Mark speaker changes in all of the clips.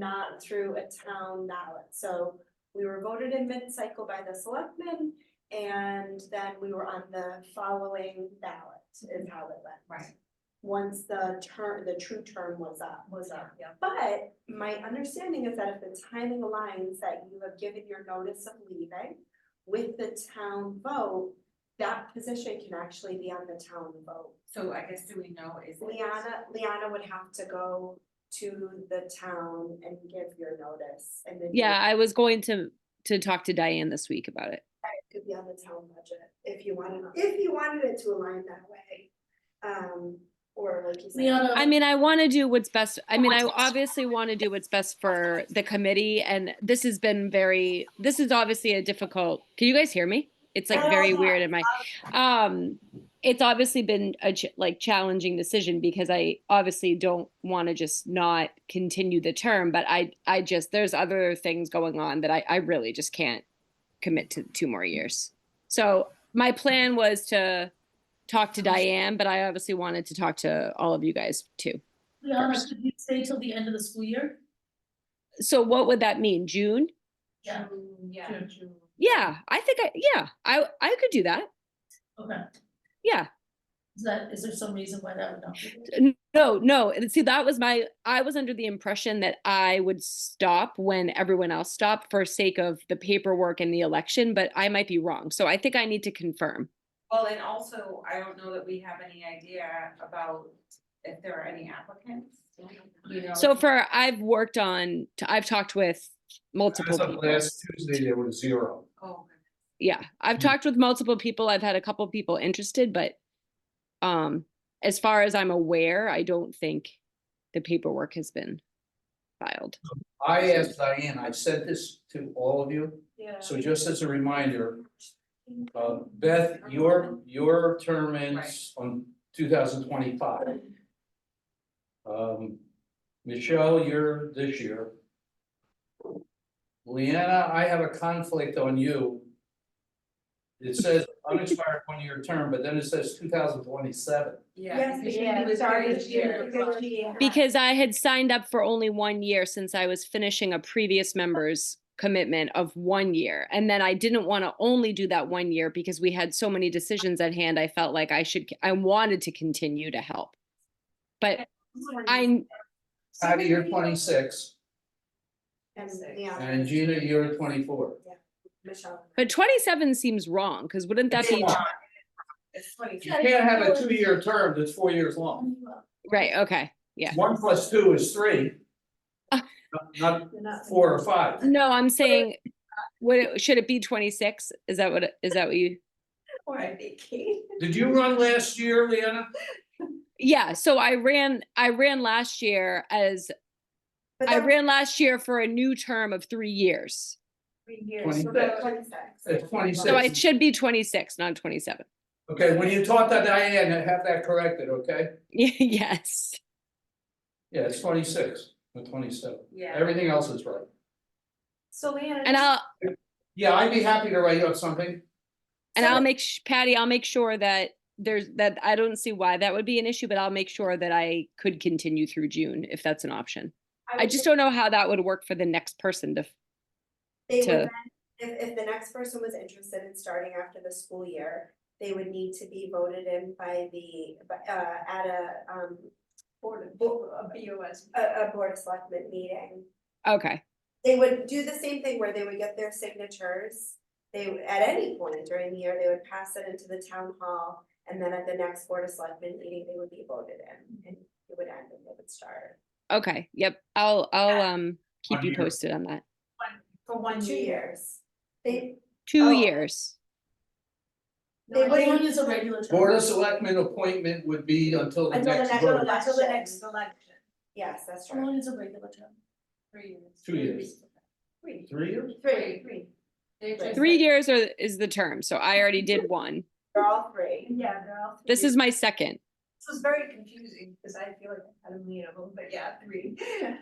Speaker 1: not through a town ballot. So we were voted in mid-cycle by the selectmen and then we were on the following ballot is how it went.
Speaker 2: Right.
Speaker 1: Once the term, the true term was up.
Speaker 2: was up, yeah.
Speaker 1: But my understanding is that if the timing aligns that you have given your notice of leaving with the town vote, that position can actually be on the town vote.
Speaker 2: So I guess do we know is. it-
Speaker 1: Liana, Liana would have to go to the town and give your notice and then. you
Speaker 3: Yeah, I was going to to talk to Diane this week about it.
Speaker 1: Could be on the town budget if you wanted, if you wanted it to align that way. Um, or like you said.
Speaker 3: I mean, I want to do what's best. I mean, I obviously want to do what's best for the committee and this has been very this is obviously a difficult. Can you guys hear me? It's like very weird in my um it's obviously been a ch- like challenging decision because I obviously don't want to just not continue the term, but I I just there's other things going on that I I really just can't commit to two more years. So my plan was to talk to Diane, but I obviously wanted to talk to all of you guys too.
Speaker 4: Liana,
Speaker 3: first.
Speaker 4: could you stay till the end of the school year?
Speaker 3: So what would that mean? June?
Speaker 4: Yeah.
Speaker 2: June, Yeah.
Speaker 4: Sure.
Speaker 2: June.
Speaker 3: Yeah, I think I yeah, I I could do that.
Speaker 4: Okay,
Speaker 3: Yeah.
Speaker 4: is that, is there some reason why that would not be? there?
Speaker 3: N- No, no. and See, that was my, I was under the impression that I would stop when everyone else stopped for sake of the paperwork and the election, but I might be wrong. So I think I need to confirm.
Speaker 2: Well, and also, I don't know that we have any idea about if there are any applicants, you know.
Speaker 3: So for, I've worked on, t- I've talked with multiple
Speaker 5: As of
Speaker 3: people.
Speaker 5: last Tuesday, there was zero.
Speaker 2: Oh,
Speaker 3: Yeah, I've talked with multiple people. I've had a couple people interested, but um, as far as I'm aware, I don't think the paperwork has been filed.
Speaker 5: I asked Diane, I've said this to all of you,
Speaker 1: Yeah.
Speaker 5: so just as a reminder, uh, Beth, your, your term ends on two thousand twenty-five. Um, Michelle, you're this year. Leanna, I have a conflict on you. It says unexpired one-year term, but then it says two thousand twenty-seven.
Speaker 2: yeah.
Speaker 1: Yes,
Speaker 2: because she
Speaker 1: yeah,
Speaker 2: was
Speaker 1: sorry,
Speaker 2: here
Speaker 1: it's
Speaker 2: this year.
Speaker 1: because she had-
Speaker 3: Because I had signed up for only one year since I was finishing a previous member's commitment of one year. And then I didn't want to only do that one year because we had so many decisions at hand. I felt like I should, I wanted to continue to help. But I,
Speaker 5: Patty, you're twenty-six,
Speaker 1: And Liana.
Speaker 5: and Gina, you're twenty-four.
Speaker 1: Michelle.
Speaker 3: but 27 seems wrong because wouldn't that
Speaker 5: Come
Speaker 3: be,
Speaker 5: on.
Speaker 2: It's funny.
Speaker 5: You can't have a two-year term that's four years long.
Speaker 3: right? Okay. Yeah.
Speaker 5: One plus two is three.
Speaker 3: Uh.
Speaker 5: Not- Not four or five.
Speaker 3: No, I'm saying, would it, should it be 26? Is that what, it- is that what you?
Speaker 1: Or I'd be Kate.
Speaker 5: Did you run last year, Leanna?
Speaker 3: Yeah. So I ran, I ran last year as,
Speaker 1: But
Speaker 3: I
Speaker 1: that-
Speaker 3: ran last year for a new term of three years.
Speaker 1: Three years.
Speaker 5: Twenty
Speaker 1: so
Speaker 5: six.
Speaker 1: Twenty-six.
Speaker 5: It's
Speaker 3: So I
Speaker 5: 26.
Speaker 3: should be twenty-six, not twenty-seven.
Speaker 5: Okay, when you talk to Diane, have that corrected, okay?
Speaker 3: Yes.
Speaker 5: Yeah, it's twenty-six, not twenty-seven.
Speaker 2: Yeah.
Speaker 5: Everything else is right.
Speaker 1: So Leanna.
Speaker 3: And I'll,
Speaker 5: Yeah, I'd be happy to write up something.
Speaker 3: and
Speaker 1: So-
Speaker 3: I'll make, sh- Patty, I'll make sure that there's, that I don't see why that would be an issue, but I'll make sure that I could continue through June if that's an option. I
Speaker 1: would
Speaker 3: just
Speaker 1: think
Speaker 3: don't know how that would work for the next person to,
Speaker 1: They would
Speaker 3: to-
Speaker 1: then, if, if the next person was interested in starting after the school year, they would need to be voted in by the, by, uh, at a, um, board, of- bo- a B O S. A, a board of selectmen meeting.
Speaker 3: okay,
Speaker 1: They would do the same thing where they would get their signatures. They, would- at any point during the year, they would pass it into the town hall. And then at the next board of selectmen meeting, they would be voted in and it would end and they would start.
Speaker 3: okay, yep. I'll, I'll,
Speaker 2: Yeah.
Speaker 3: um, keep
Speaker 5: One
Speaker 3: you
Speaker 5: year.
Speaker 3: posted on that.
Speaker 2: For one
Speaker 1: Two years. They,
Speaker 3: Two
Speaker 1: Oh.
Speaker 3: years.
Speaker 4: No,
Speaker 1: They
Speaker 4: as long
Speaker 1: wouldn't-
Speaker 4: as a regular. term.
Speaker 5: Board of Selectmen appointment would be until the
Speaker 1: Until the
Speaker 5: next
Speaker 1: next
Speaker 5: vote.
Speaker 1: one.
Speaker 2: Until the next election,
Speaker 1: yes, that's
Speaker 4: As
Speaker 1: right.
Speaker 4: long as a regular term.
Speaker 2: three years.
Speaker 5: Two years.
Speaker 2: Three.
Speaker 5: Three years?
Speaker 1: Three,
Speaker 2: Three. They're just
Speaker 3: Three
Speaker 2: like-
Speaker 3: years or is the term, so I already did one.
Speaker 1: they're all three.
Speaker 2: Yeah, they're all.
Speaker 3: This
Speaker 2: three.
Speaker 3: is my second.
Speaker 2: This was very confusing, because I feel like I had a million of them, but yeah, three.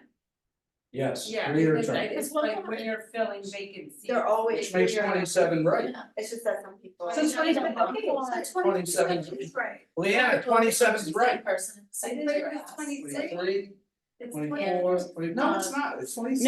Speaker 5: Yes,
Speaker 2: Yeah,
Speaker 5: three-year
Speaker 2: because
Speaker 5: term.
Speaker 2: I- it's like when you're filling vacancies.
Speaker 1: They're always
Speaker 5: Which makes
Speaker 1: three-year.
Speaker 5: twenty-seven right.
Speaker 4: Yeah.
Speaker 1: It's just that some people.
Speaker 2: So it's twenty, okay, so
Speaker 5: Twenty-seven.
Speaker 2: twenty, right.
Speaker 5: Leanna, twenty-seven is right.
Speaker 4: Person, second
Speaker 2: But
Speaker 4: year
Speaker 2: it was
Speaker 4: asked.
Speaker 2: 20
Speaker 5: Three,
Speaker 1: It's
Speaker 5: twenty-four,
Speaker 1: twenty-
Speaker 5: twenty, no, it's not, it's twenty-six.